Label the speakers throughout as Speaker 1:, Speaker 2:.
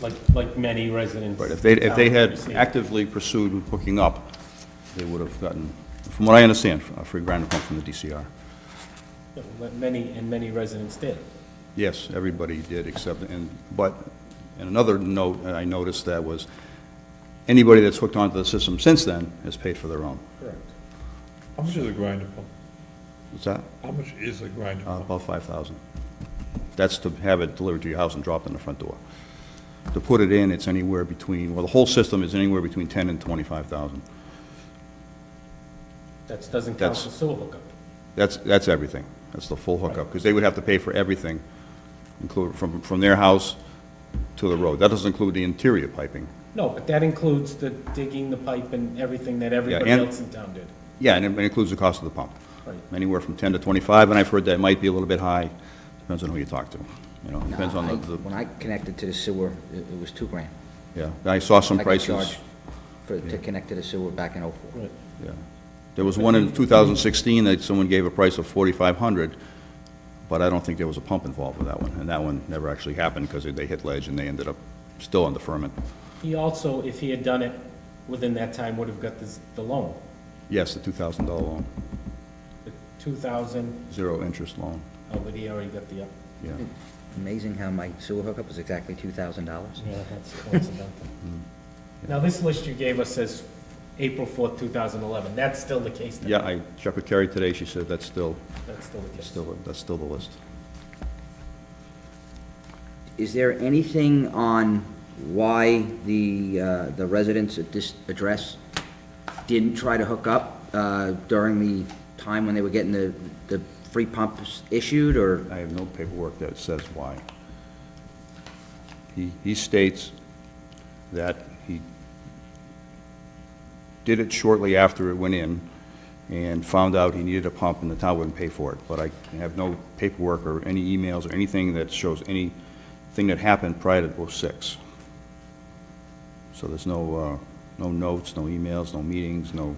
Speaker 1: like, like many residents.
Speaker 2: Right, if they, if they had
Speaker 1: Obviously.
Speaker 2: actively pursued hooking up, they would have gotten, from what I understand, a free grant pump from the DCR.
Speaker 1: Yeah, but Many, and many residents did.
Speaker 2: Yes, everybody did except, and, but, and another note that I noticed that was, anybody that's hooked onto the system since then has paid for their own.
Speaker 1: Correct.
Speaker 3: How much is a grinder pump?
Speaker 2: What's that?
Speaker 3: How much is a grinder
Speaker 2: Uh,
Speaker 3: pump?
Speaker 2: About five thousand. That's to have it delivered to your house and dropped in the front door. To put it in, it's anywhere between, well, the whole system is anywhere between ten and twenty-five thousand.
Speaker 1: That doesn't count
Speaker 2: That's-
Speaker 1: the sewer hookup.
Speaker 2: That's, that's everything. That's the full hookup, because they would have to pay for everything, include, from, from their house to the road. That doesn't include the interior piping.
Speaker 1: No, but that includes the digging the pipe and everything that everybody
Speaker 2: and-
Speaker 1: else in town did.
Speaker 2: Yeah, and it includes the cost of the pump.
Speaker 1: Right.
Speaker 2: Anywhere from ten to twenty-five, and I've heard that might be a little bit high, depends on who you talk to, you know, depends on
Speaker 4: I-
Speaker 2: the, the-
Speaker 4: When I connected to the sewer, it it was two grand.
Speaker 2: yeah. I saw some
Speaker 4: I got
Speaker 2: prices.
Speaker 4: charged for, to connect to the sewer back in '04.
Speaker 1: Right.
Speaker 2: Yeah. There was one in 2016 that someone gave a price of 4,500, but I don't think there was a pump involved with that one. And that one never actually happened because they hit ledge and they ended up still on the firmament.
Speaker 1: He also, if he had done it within that time, would have got this, the loan,
Speaker 2: Yes, the $2,000 loan,
Speaker 1: the two thousand,
Speaker 2: zero interest loan,
Speaker 1: oh, but he already got the, uh,
Speaker 2: yeah.
Speaker 4: Amazing how my sewer hookup was exactly $2,000.
Speaker 1: yeah, that's coincidental.
Speaker 2: Mm-hmm.
Speaker 1: Now, this list you gave us says April fourth, two thousand eleven, that's still the case then?
Speaker 2: Yeah, I checked with Carrie today, she said that's still,
Speaker 1: That's still the case.
Speaker 2: still, that's still the list.
Speaker 4: Is there anything on why the, uh, the residents at this address didn't try to hook up uh, during the time when they were getting the, the free pumps issued, or?
Speaker 2: I have no paperwork that says why. He, he states that he did it shortly after it went in and found out he needed a pump and the town wouldn't pay for it. But I have no paperwork or any emails or anything that shows anything that happened prior to '06. So there's no, uh, no notes, no emails, no meetings, no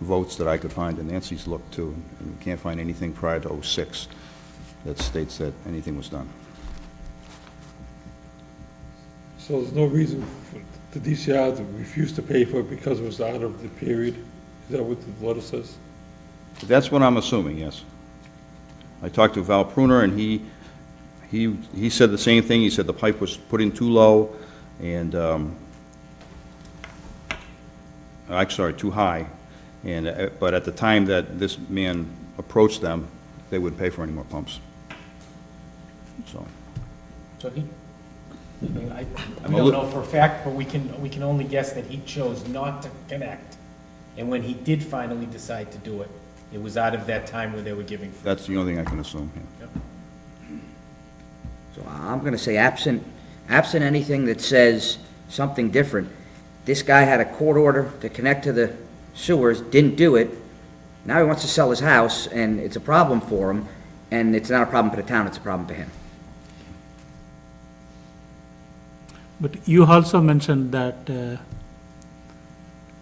Speaker 2: votes that I could find, and Nancy's looked too, and we can't find anything prior to '06 that states that anything was done.
Speaker 3: So there's no reason for the DCR to refuse to pay for it because it was out of the period? Is that what the letter says?
Speaker 2: That's what I'm assuming, yes. I talked to Val Pruner, and he, he, he said the same thing, he said the pipe was put in too low, and, um, I'm sorry, too high, and, uh, but at the time that this man approached them, they wouldn't pay for any more pumps. So,
Speaker 1: So he, I mean, I,
Speaker 2: I'm
Speaker 1: we
Speaker 2: a
Speaker 1: don't
Speaker 2: lit-
Speaker 1: know for a fact, but we can, we can only guess that he chose not to connect. And when he did finally decide to do it, it was out of that time where they were giving free.
Speaker 2: that's the only thing I can assume, yeah.
Speaker 4: So I'm going to say absent, absent anything that says something different, this guy had a court order to connect to the sewers, didn't do it, now he wants to sell his house, and it's a problem for him, and it's not a problem for the town, it's a problem for him.
Speaker 5: But you also mentioned that uh,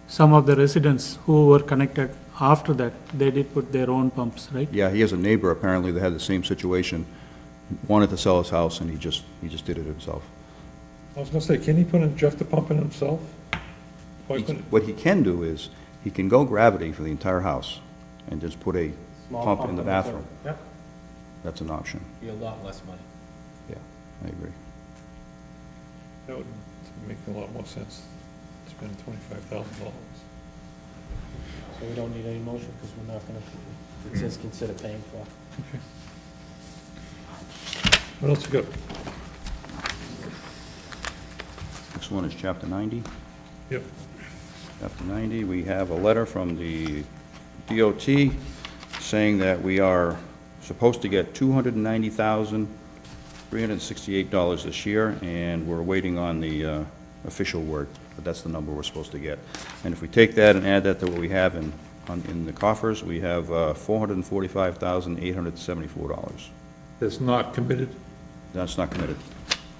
Speaker 5: some of the residents who were connected after that, they did put their own pumps, right?
Speaker 2: Yeah, he has a neighbor apparently that had the same situation, wanted to sell his house, and he just, he just did it himself.
Speaker 3: I was gonna say, can he put in, Jeff the pump in himself? Why
Speaker 2: He-
Speaker 3: couldn't,
Speaker 2: What he can do is, he can go gravity for the entire house and just put a
Speaker 1: Small
Speaker 2: pump in the
Speaker 1: on
Speaker 2: bathroom.
Speaker 1: Yep,
Speaker 2: That's an option.
Speaker 1: be a lot less money.
Speaker 2: Yeah, I agree.
Speaker 3: that would make a lot more sense, spend twenty-five thousand dollars.
Speaker 1: So we don't need any motion because we're not gonna, it says consider paying for.
Speaker 3: What else you got?
Speaker 2: Next one is chapter 90.
Speaker 3: Yep.
Speaker 2: Chapter 90, we have a letter from the DOT saying that we are supposed to get $290,368 this year, and we're waiting on the uh, official word, but that's the number we're supposed to get. And if we take that and add that to what we have in, on- in the coffers, we have uh, $445,874.
Speaker 3: That's not committed?
Speaker 2: That's not committed.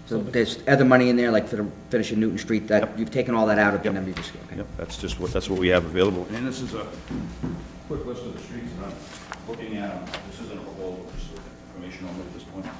Speaker 4: So there's other money in there, like for the finishing Newton Street, that, you've taken all that out of the number you just, okay.
Speaker 2: Yep, that's just what, that's what we have available. And this is a quick list of the streets that I'm looking at. This isn't a whole, just information only at this point. uh,